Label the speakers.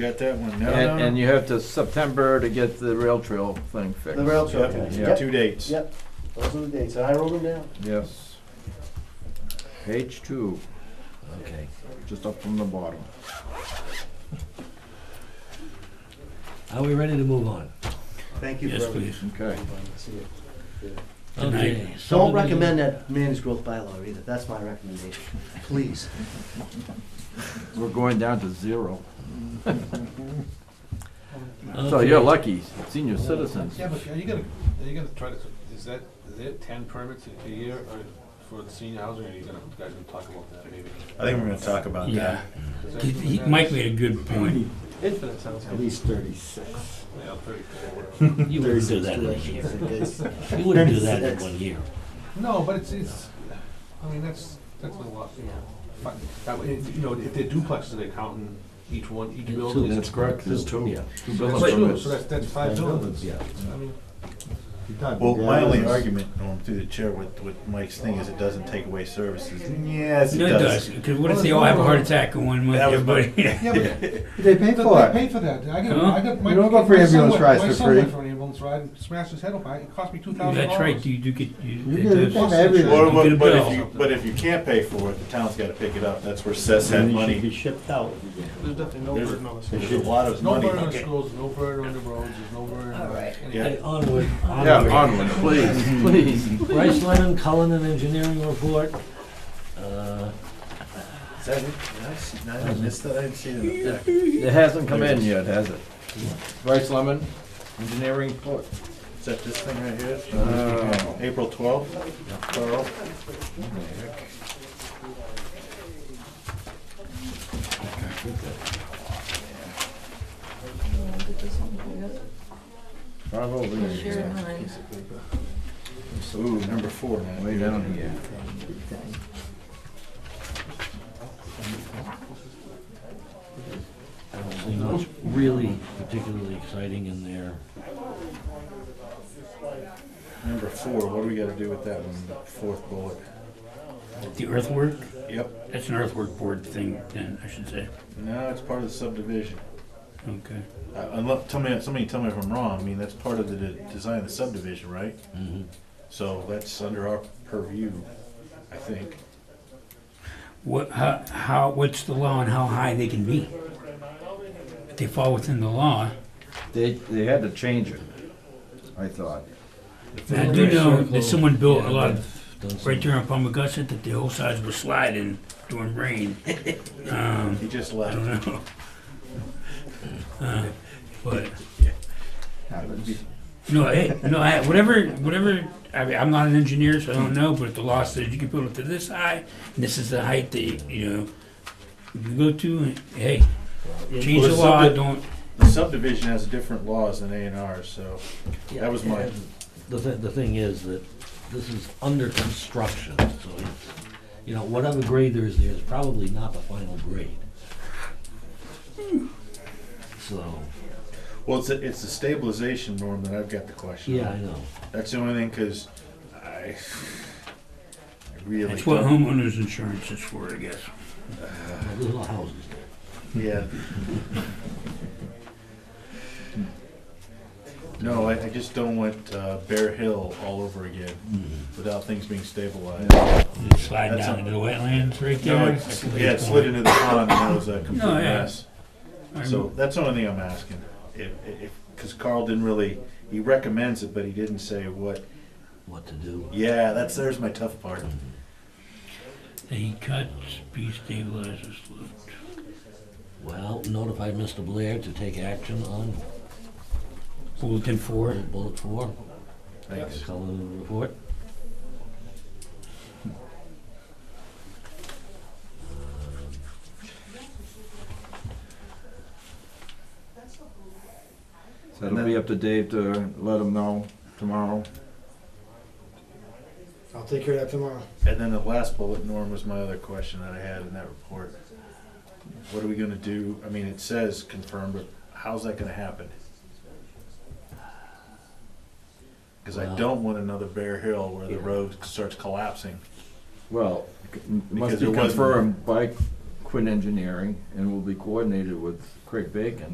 Speaker 1: Got that one. No, no,
Speaker 2: And,
Speaker 1: no.
Speaker 2: and you have to September to get the rail trail thing
Speaker 3: The
Speaker 2: fixed.
Speaker 3: rail trail connection,
Speaker 2: Yeah.
Speaker 3: yep,
Speaker 1: Two dates.
Speaker 3: yep, those are the dates, and I wrote them down.
Speaker 2: Yes. Page two,
Speaker 4: Okay.
Speaker 2: just up from the bottom.
Speaker 4: Are we ready to move on?
Speaker 3: Thank you for
Speaker 5: Yes,
Speaker 3: everything.
Speaker 5: please.
Speaker 2: Okay.
Speaker 3: See you.
Speaker 5: Okay.
Speaker 3: Don't recommend that managed growth bylaw either, that's my recommendation, please.
Speaker 2: We're going down to zero.
Speaker 5: Okay.
Speaker 2: So you're lucky, senior citizens.
Speaker 6: Yeah, but are you gonna, are you gonna try to, is that, is it ten permits a year or for the senior housing, or are you gonna, you guys gonna talk about that maybe?
Speaker 1: I think we're gonna talk about that.
Speaker 5: Yeah.
Speaker 6: Is that
Speaker 5: He-
Speaker 6: something
Speaker 5: he-
Speaker 6: that
Speaker 5: Mike
Speaker 6: is-
Speaker 5: made a good point.
Speaker 6: Infinite sounds
Speaker 3: At
Speaker 6: good.
Speaker 3: least thirty-six.
Speaker 6: Yeah, pretty cool.
Speaker 5: You wouldn't do that in a year.
Speaker 3: Thirty-six.
Speaker 5: You wouldn't do that in one year.
Speaker 6: No, but it's, it's, I mean, that's, that's a lot, you know. But That way, if- you know, if they're duplexes, they count in each one, each building is.
Speaker 2: That's correct, there's two.
Speaker 4: Yeah.
Speaker 2: Two
Speaker 6: So
Speaker 2: building
Speaker 6: that's two,
Speaker 2: permits.
Speaker 6: so that's, that's five buildings.
Speaker 4: Yeah.
Speaker 6: I mean,
Speaker 1: Well, my only argument, Norm, through the chair with, with Mike's thing is it doesn't take away services. Yes, it
Speaker 5: No, it does,
Speaker 1: does.
Speaker 5: because what if they all have a heart attack in one month,
Speaker 1: That was my-
Speaker 5: everybody?
Speaker 6: Yeah, but
Speaker 7: They pay for
Speaker 6: they
Speaker 7: it.
Speaker 6: pay for that, I got,
Speaker 5: Huh?
Speaker 6: I got. my-
Speaker 7: You don't go for
Speaker 6: my son
Speaker 7: ambulance
Speaker 6: went-
Speaker 7: rides for free.
Speaker 6: My son went for an ambulance ride and smashed his head off, it cost me two thousand dollars.
Speaker 5: That's right, you do get, you.
Speaker 7: You
Speaker 5: it
Speaker 7: get a
Speaker 5: does-
Speaker 7: thing every-
Speaker 5: you
Speaker 1: Or,
Speaker 5: get a
Speaker 1: but, but if
Speaker 5: bill.
Speaker 1: you, but if you can't pay for it, the town's gotta pick it up. That's where Seth had
Speaker 4: And it should be
Speaker 1: money.
Speaker 4: shipped out.
Speaker 6: There's definitely no
Speaker 1: There's
Speaker 6: burden on the
Speaker 1: there's
Speaker 6: schools.
Speaker 1: a lot of
Speaker 6: There's no
Speaker 1: money.
Speaker 6: burden on
Speaker 1: Okay.
Speaker 6: schools, no burden on the roads, there's no burden on anything.
Speaker 1: Yeah.
Speaker 4: Hey, Onward,
Speaker 2: Yeah,
Speaker 4: onward.
Speaker 2: onward, please, please.
Speaker 4: Bryce Lemon, Cullen and Engineering Report. Uh,
Speaker 1: Is that it? Did I see- did I missed that, I didn't see that. Is
Speaker 2: It hasn't come in yet, has it? Bryce Lemon, engineering report.
Speaker 1: that this thing right
Speaker 2: Oh.
Speaker 1: here? Uh, April twelfth, Carl?
Speaker 2: Five over
Speaker 8: Sure,
Speaker 2: there.
Speaker 8: honey.
Speaker 1: Ooh, number four, man.
Speaker 2: Way down here.
Speaker 4: I don't see much really particularly exciting in there.
Speaker 1: Number four, what do we gotta do with that one? Fourth bullet?
Speaker 5: The earthwork,
Speaker 1: Yep,
Speaker 5: that's an earthwork board thing then, I should say.
Speaker 1: no, it's part of the subdivision.
Speaker 5: Okay.
Speaker 1: Uh, unless, tell me, somebody tell me if I'm wrong, I mean, that's part of the de- design of the subdivision, right?
Speaker 4: Mhm.
Speaker 1: So that's under our purview, I think.
Speaker 5: What, how, how, what's the law on how high they can be? If they fall within the law,
Speaker 2: They, they had to change it, I thought.
Speaker 5: I do know that someone built a
Speaker 4: Yeah,
Speaker 5: lot of
Speaker 4: I've done some-
Speaker 5: Right there on Palmagussit, that the whole sides were sliding during rain. Um,
Speaker 1: He just
Speaker 5: I
Speaker 1: left.
Speaker 5: don't know. Uh, But,
Speaker 2: Happens.
Speaker 5: no, hey, no, I, whatever, whatever, I mean, I'm not an engineer, so I don't know, but if the law says you can build it to this high, and this is the height that, you know, you go to, hey, change the law, don't,
Speaker 1: The subdivision has different laws than A and R, so that was my,
Speaker 4: The thi- the thing is that this is under construction, so it's, you know, whatever grade there is there is probably not the final grade. So,
Speaker 1: well, it's, the- it's the stabilization norm that I've got the question
Speaker 4: yeah, I
Speaker 1: on.
Speaker 4: know.
Speaker 1: That's the only thing, cause I, I really.
Speaker 5: that's what
Speaker 1: don't-
Speaker 5: homeowners insurance is for, I guess.
Speaker 4: Well, There's a lot of houses there.
Speaker 1: Yeah. No, I, I just don't want uh, Bear Hill all over again without things being stabilized.
Speaker 5: They Slide
Speaker 1: That's
Speaker 5: down
Speaker 1: a-
Speaker 5: into the wetlands right
Speaker 1: No,
Speaker 5: there.
Speaker 1: it's- yeah, it slid into the pond and it was a complete
Speaker 5: No, yeah.
Speaker 1: mess. So that's the only thing I'm asking. If, if, because Carl didn't really, he recommends it, but he didn't say what.
Speaker 4: What to do?
Speaker 1: Yeah, that's, there's my tough part.
Speaker 5: They cut speed stabilizers loose.
Speaker 4: Well, notify Mr. Blair to take action on
Speaker 5: Bulletin four.
Speaker 4: bullet- bullet four.
Speaker 1: Thanks.
Speaker 4: Color of the report.
Speaker 2: So it'll be up to Dave to let him know tomorrow.
Speaker 7: I'll take care of that tomorrow.
Speaker 1: And then the last bullet, Norm, was my other question that I had in that report. What are we gonna do? I mean, it says confirm, but how's that gonna happen? Cause I
Speaker 4: Well-
Speaker 1: don't want another Bear Hill where the road starts collapsing.
Speaker 2: Well, c- m-
Speaker 1: Because
Speaker 2: must be
Speaker 1: it wasn't-
Speaker 2: confirmed by Quinn Engineering and will be coordinated with Craig Bacon.